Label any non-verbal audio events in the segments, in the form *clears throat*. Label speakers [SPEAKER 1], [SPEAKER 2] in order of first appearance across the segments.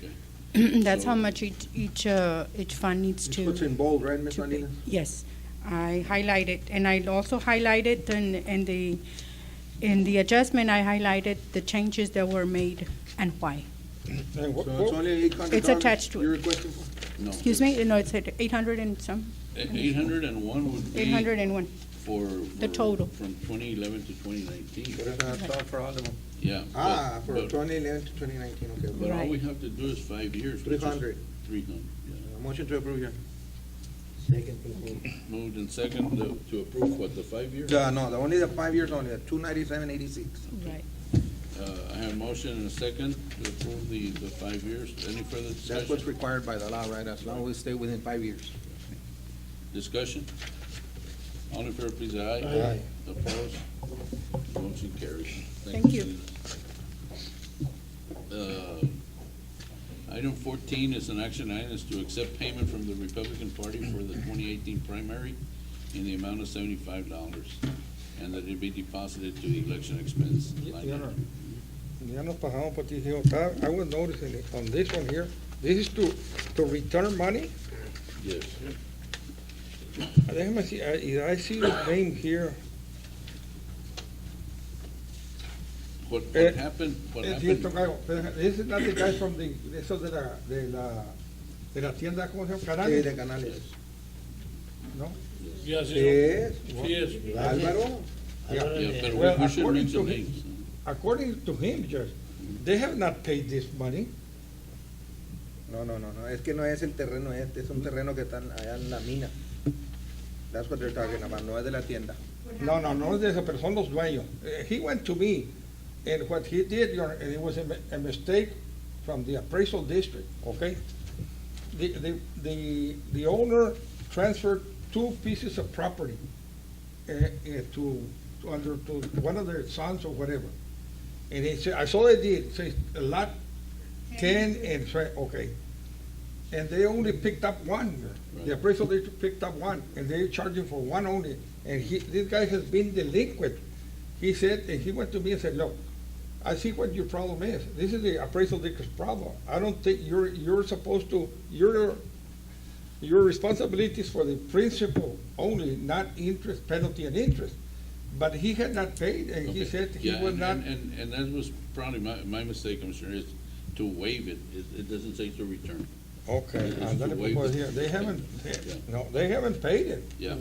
[SPEAKER 1] *clears throat* That's how much each, each, uh, each fund needs
[SPEAKER 2] It's
[SPEAKER 1] to.
[SPEAKER 2] what's in bold, right, Ms.
[SPEAKER 1] to pay.
[SPEAKER 2] Salinas?
[SPEAKER 1] Yes, I highlighted, and I also highlighted in, in the, in the adjustment, I highlighted the changes that were made and why.
[SPEAKER 3] And what-
[SPEAKER 2] So it's
[SPEAKER 3] what-
[SPEAKER 2] only eight hundred dollars?
[SPEAKER 1] It's attached to it.
[SPEAKER 2] You're requesting for?
[SPEAKER 4] No.
[SPEAKER 1] Excuse me, no, it's at eight hundred and some,
[SPEAKER 4] Eight hundred and one would be.
[SPEAKER 1] eight hundred and one,
[SPEAKER 4] For.
[SPEAKER 1] The
[SPEAKER 4] for-
[SPEAKER 1] total.
[SPEAKER 4] From twenty eleven to twenty nineteen,
[SPEAKER 2] But it's not for all of them.
[SPEAKER 4] yeah. but-
[SPEAKER 2] Ah, for
[SPEAKER 4] but-
[SPEAKER 2] twenty eleven to twenty nineteen, okay.
[SPEAKER 4] But all
[SPEAKER 1] Right.
[SPEAKER 4] we have to do is five years.
[SPEAKER 2] Three hundred.
[SPEAKER 4] Three hundred, yeah.
[SPEAKER 2] Uh, Motion to approve, Your Honor.
[SPEAKER 4] Moved and second to- to approve what, the five years?
[SPEAKER 2] Uh, no, the only the five years only, two ninety-seven eighty-six.
[SPEAKER 1] right.
[SPEAKER 4] Uh, I have a motion and a second to approve the, the five years. Any further
[SPEAKER 2] That's what's
[SPEAKER 4] discussion?
[SPEAKER 2] required by the law, right, as long as we stay within five years.
[SPEAKER 4] Discussion? All in favor, please, aye.
[SPEAKER 2] Aye.
[SPEAKER 4] Opposed? Motion carries.
[SPEAKER 1] Thank you.
[SPEAKER 4] Selena. Uh, Item fourteen is an action item, is to accept payment from the Republican Party for the twenty eighteen primary in the amount of seventy-five dollars, and that it be deposited to the election expense line
[SPEAKER 3] Yeah.
[SPEAKER 4] item.
[SPEAKER 3] Ya nos pasamos por TCO. That- I was noticing it on this one here. This is to, to return money.
[SPEAKER 4] Yes.
[SPEAKER 3] Uh, Déjame see,
[SPEAKER 2] ah,
[SPEAKER 3] I, I see the name here.
[SPEAKER 4] What,
[SPEAKER 3] Eh,
[SPEAKER 4] what happened, what
[SPEAKER 3] Es cierto,
[SPEAKER 4] happened?
[SPEAKER 3] Cayo. Pero This is not the guy from the, de esos de la, de la, de la tienda, ¿cómo se llama?
[SPEAKER 2] Sí, de
[SPEAKER 3] Canales,
[SPEAKER 2] Canales.
[SPEAKER 3] ¿no?
[SPEAKER 5] Yes,
[SPEAKER 3] Eh?
[SPEAKER 2] Yes,
[SPEAKER 5] yes.
[SPEAKER 2] Álvaro,
[SPEAKER 3] Yeah.
[SPEAKER 4] Yeah, but
[SPEAKER 3] Well,
[SPEAKER 4] we- we should
[SPEAKER 3] according
[SPEAKER 4] mention
[SPEAKER 3] to him-
[SPEAKER 4] names.
[SPEAKER 3] According to him, Judge, they have not paid this money.
[SPEAKER 2] no, no, no, no, es que no es el terreno este, es un terreno que está allá en la mina. That's what they're talking about, no es de la tienda.
[SPEAKER 3] No, no, no es de eso, pero son los dueños. Eh, He went to me, and what he did, Your Honor, and it was a mi- a mistake from the appraisal district, okay? The, the, the, the owner transferred two pieces of property eh, eh, to, to under, to one of their sons or whatever. And he said, I saw they did, says a lot, ten and, three, okay. And they only picked up one, Your Honor.
[SPEAKER 4] Right.
[SPEAKER 3] the appraisal district picked up one, and they charged him for one only. And he, this guy has been delinquent. He said, and he went to me and said, look, I see what your problem is. This is the appraisal district's problem. I don't think you're, you're supposed to, your, your responsibility is for the principal only, not interest, penalty and interest. But he had not paid, and he
[SPEAKER 4] Okay.
[SPEAKER 3] said he
[SPEAKER 4] Yeah,
[SPEAKER 3] would
[SPEAKER 4] and-
[SPEAKER 3] not,
[SPEAKER 4] And, and- and that was probably my, my mistake, I'm sure, is to waive it. It, it doesn't say to return.
[SPEAKER 3] okay,
[SPEAKER 4] It's
[SPEAKER 3] and
[SPEAKER 4] to
[SPEAKER 3] then
[SPEAKER 4] waive
[SPEAKER 3] was
[SPEAKER 4] it.
[SPEAKER 3] here, they haven't, they-
[SPEAKER 4] Yeah.
[SPEAKER 3] no, they haven't paid it.
[SPEAKER 4] Yeah,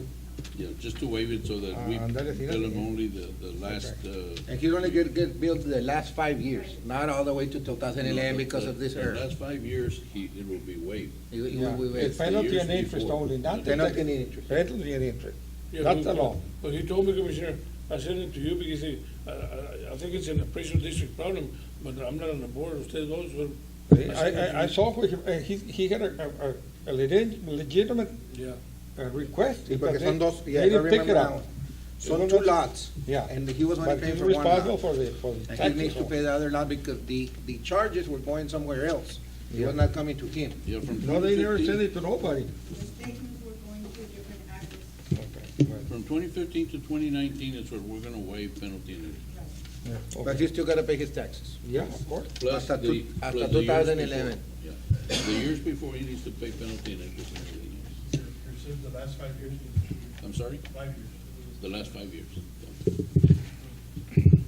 [SPEAKER 4] yeah, just to waive it so that we
[SPEAKER 3] Mm. Ah, andale, fíjate.
[SPEAKER 4] bill them only the, the last, uh.
[SPEAKER 6] And he's only get, get billed the last five years, not all the way to two thousand eleven because of this
[SPEAKER 4] the
[SPEAKER 6] error.
[SPEAKER 4] Last five years, he, it will be waived.
[SPEAKER 6] It- it
[SPEAKER 3] Yeah.
[SPEAKER 6] will- we-
[SPEAKER 3] It's
[SPEAKER 6] we-
[SPEAKER 3] penalty
[SPEAKER 4] years
[SPEAKER 3] and interest
[SPEAKER 4] before.
[SPEAKER 3] only, not the.
[SPEAKER 2] Penalty and interest.
[SPEAKER 3] Penalty and interest.
[SPEAKER 5] Yeah,
[SPEAKER 3] That's the
[SPEAKER 5] but-
[SPEAKER 3] law.
[SPEAKER 5] But he told me, Commissioner, I sent it to you because he- I, I, I think it's an appraisal district problem, but I'm not on the board, ustedes dos, but.
[SPEAKER 3] I,
[SPEAKER 5] sent it to
[SPEAKER 3] I, I
[SPEAKER 5] you.
[SPEAKER 3] saw, what he- uh, he, he had a, a, a legit- legitimate
[SPEAKER 5] Yeah.
[SPEAKER 3] uh, request.
[SPEAKER 2] Sí, porque
[SPEAKER 3] because
[SPEAKER 2] son
[SPEAKER 3] they-
[SPEAKER 2] dos, yeah,
[SPEAKER 3] they
[SPEAKER 2] I
[SPEAKER 3] didn't pick
[SPEAKER 2] remember
[SPEAKER 3] it up.
[SPEAKER 2] now. Son two lots.
[SPEAKER 3] Yeah.
[SPEAKER 2] And he was only
[SPEAKER 3] But
[SPEAKER 2] paying
[SPEAKER 3] he's
[SPEAKER 2] for one
[SPEAKER 3] responsible
[SPEAKER 2] lot.
[SPEAKER 3] for the, for the
[SPEAKER 2] And he needs
[SPEAKER 3] taxes.
[SPEAKER 2] to pay the other lot because the, the charges were going somewhere else. It was not coming to him.
[SPEAKER 4] Yeah, from
[SPEAKER 3] No, they never sent
[SPEAKER 4] 2015
[SPEAKER 3] it to nobody.
[SPEAKER 4] From twenty fifteen to twenty nineteen is what we're gonna waive penalty and interest.
[SPEAKER 3] Yeah,
[SPEAKER 6] But
[SPEAKER 3] okay.
[SPEAKER 6] he still gotta pay his taxes.
[SPEAKER 3] Yeah, of course.
[SPEAKER 4] Plus
[SPEAKER 2] Hasta
[SPEAKER 4] the-
[SPEAKER 2] two-
[SPEAKER 4] plus
[SPEAKER 6] hasta
[SPEAKER 4] the years
[SPEAKER 6] 2011.
[SPEAKER 4] before. Yeah, the years before, he needs to pay penalty and interest and everything else.
[SPEAKER 7] Received the last five years,
[SPEAKER 4] I'm sorry?
[SPEAKER 7] five years.
[SPEAKER 4] The last five years.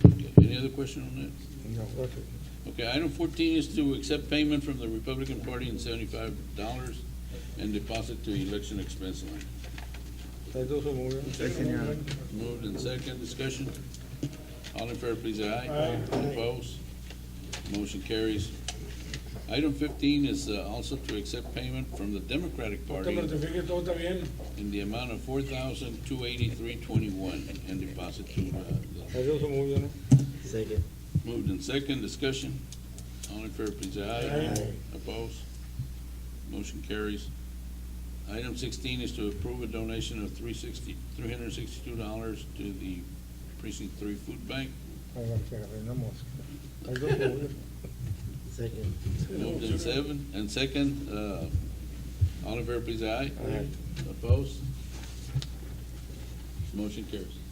[SPEAKER 4] Okay, Any other question on
[SPEAKER 3] No, okay.
[SPEAKER 4] that? Okay, item fourteen is to accept payment from the Republican Party in seventy-five dollars and deposit to election expense line.
[SPEAKER 3] That's also moving.
[SPEAKER 4] Moved and second, discussion. All in favor, please, say aye. Aye. Opposed? Motion carries. Item fifteen is uh, also to accept pament from the Democratic
[SPEAKER 5] Te
[SPEAKER 4] Party
[SPEAKER 5] certifique todo está bien.
[SPEAKER 4] in the amount of four thousand two eighty-three twenty-one and deposit to, uh, the
[SPEAKER 3] That's also moving, no?
[SPEAKER 4] Moved in second, discussion. All in favor, please, say aye. Opposed? Motion carries. Item sixteen is to approve a donation of three sixty, three hundred and sixty-two dollars to the precinct three food bank.
[SPEAKER 3] I gotta check it, no mosque. That's also moving.
[SPEAKER 4] Moved in seven, and second, uh, all in favor, please, say aye. Opposed? Motion carries.